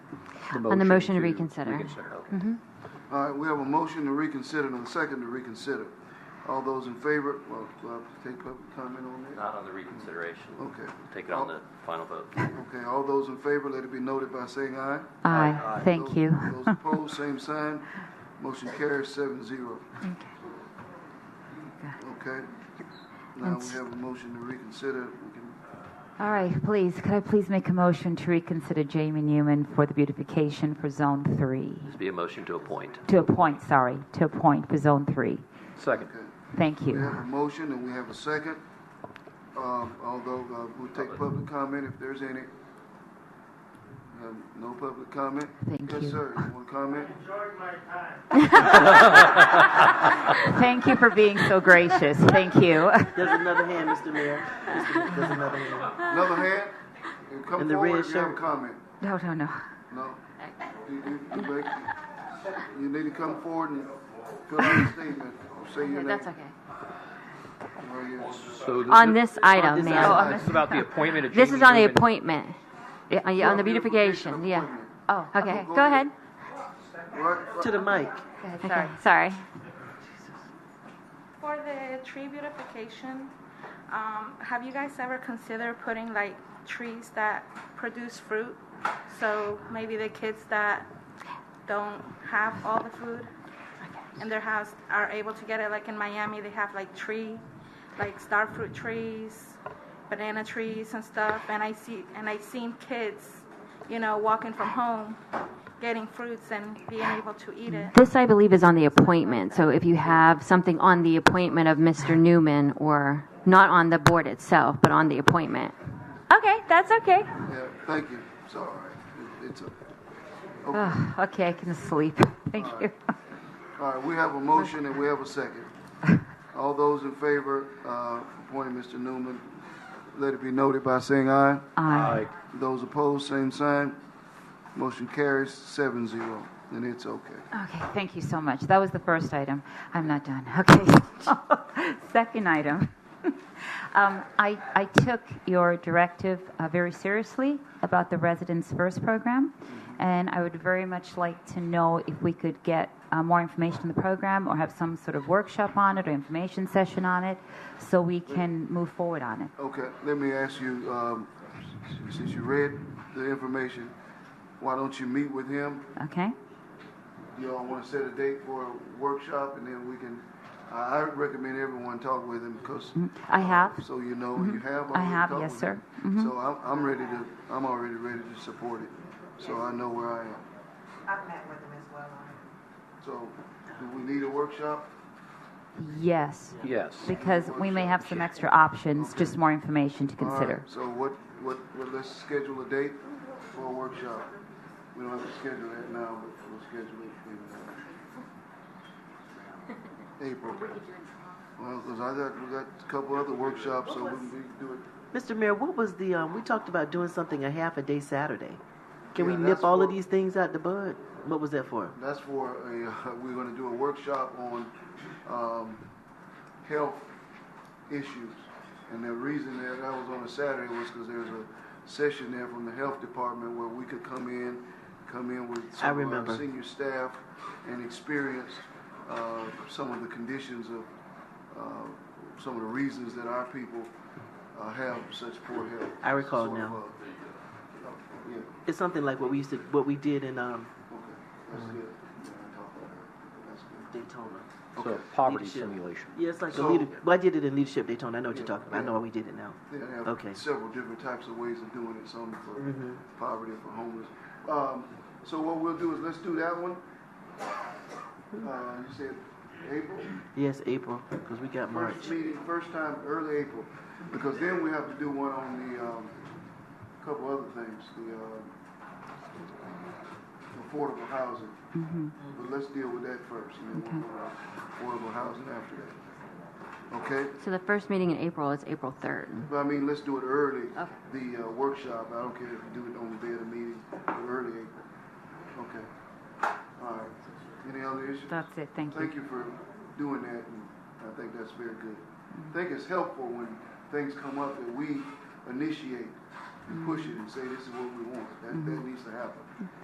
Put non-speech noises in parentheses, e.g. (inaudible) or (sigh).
on the motion to reconsider. All right, we have a motion to reconsider and a second to reconsider. All those in favor, well, do I have to take public comment on that? Not on the reconsideration. Okay. Take it on the final vote. Okay, all those in favor, let it be noted by saying aye. Aye, thank Those- you. Those opposed, same sign. Motion carries seven zero. Okay. Now we have a motion to reconsider. We can- (laughs) All right, please, could I please make a motion to reconsider Jamie Newman for the beautification for Zone 3? This be a motion to appoint. To appoint, sorry, to appoint for Zone 3. Second. Thank We you. have a motion and we have a second. Um, Although uh, we'll take public comment if there's any. Um, No public comment? Thank you. Yes, sir. You want to comment? Thank you for being so gracious. Thank you. (laughs) There's another hand, Mr. Mayor. Mr. There's another hand. Another hand? And Come In the forward red if you have a shirt. comment. No, no, no. No. You, you, you make, you need to come forward and fill out a statement. Say your Okay, name. That's okay. Right here. So On this Oh, item, this ma'am. item. This is about the appointment of Jamie This is on the Newman. appointment, Yeah, on yeah, on the the beautification beautification, yeah. appointment. Oh, okay, Go go ahead. ahead. Right, right. To the mic. Okay, Sorry. For the tree beautification, um, have you guys ever considered putting like trees that produce fruit? So maybe the kids that don't have all the food in their house are able to get it. Like in Miami, they have like tree, like star fruit trees, banana trees and stuff. And I see, and I seen kids, you know, walking from home, getting fruits and being able to eat it. This, I believe, is on the appointment, so if you have something on the appointment of Mr. Newman, or not on the board itself, but on the appointment. Okay, that's okay. Yeah, thank you. It's all right. It- It's, a- Ugh, Okay, I can sleep. Thank you. all right, we have a motion and we have a second. All those in favor, uh, appointing Mr. Newman, let it be noted by saying aye. Aye. Those opposed, same sign. Motion carries seven zero, and it's okay. Okay, thank you so much. That was the first item. I'm not done. (laughs) Okay. (laughs) Second item. Um, I, I took your directive uh, very seriously about the Residents First program, and I would very much like to know if we could get uh, more information on the program or have some sort of workshop on it or information session on it so we can move forward on it. Okay, let me ask you, um, since you read the information, why don't you meet with him? Okay? You all want to set a date for a workshop and then we can, I, I recommend everyone talk with him because. I have. So you know, you have. Mm-hmm. I already have, talked yes, with sir. Mm-hmm. him. So I'm, I'm ready to, I'm already ready to support it, so I know where I am. I've met with him as well on it. So, do we need a workshop? Yes. Yes. Because we may have some extra options, just more information to All right, consider. So what, what, well, let's schedule a date for a workshop. We don't have to schedule that now, but we'll schedule it in, (laughs) uh, April. Well, because I got, we got a couple other workshops, so we can do it. Mr. Mayor, what was the, um, we talked about doing something a half a day Saturday. Can Yeah, we that's nip all of what- these things out the bud? What was that for? That's for a, uh, we're gonna do a workshop on, um, health issues. And the reason that I was on a Saturday was because there's a session there from the health department where we could come in, come in with some of our remember. senior staff and experience, uh, some of the conditions of, uh, some of the reasons that our people, uh, have such poor health. I recall Sort of, now. uh, Yeah, It's something like what we used to, what we did in, um, okay, that's good. Yeah, I talked about that. That's good. Daytona. So poverty Leadership. simulation. Yeah, it's like a So- leader, well, I did it in Leadership Daytona. I know what you're Yeah, talking about. I yeah. know why we did it now. They have Okay. several different types of ways of doing it, some for poverty, for homeless. Um, so what we'll do is let's do that one. Uh, you said April? Yes, April, because we got March. First meeting, first time, early April, because then we have to do one on the, um, couple other things, the, um, affordable housing. But let's deal with that first, and then we'll, go to affordable housing after that. Okay? So the first meeting in April is April 3rd. But I mean, let's do it early. Okay. The uh, workshop, I don't care if you do it on the day of the meeting, but early April. Okay. All right. Any other issues? That's it, thank you. Thank you for doing that, and I think that's very good. I think it's helpful when things come up that we initiate and push it and say, this is what we want. That, that needs to happen.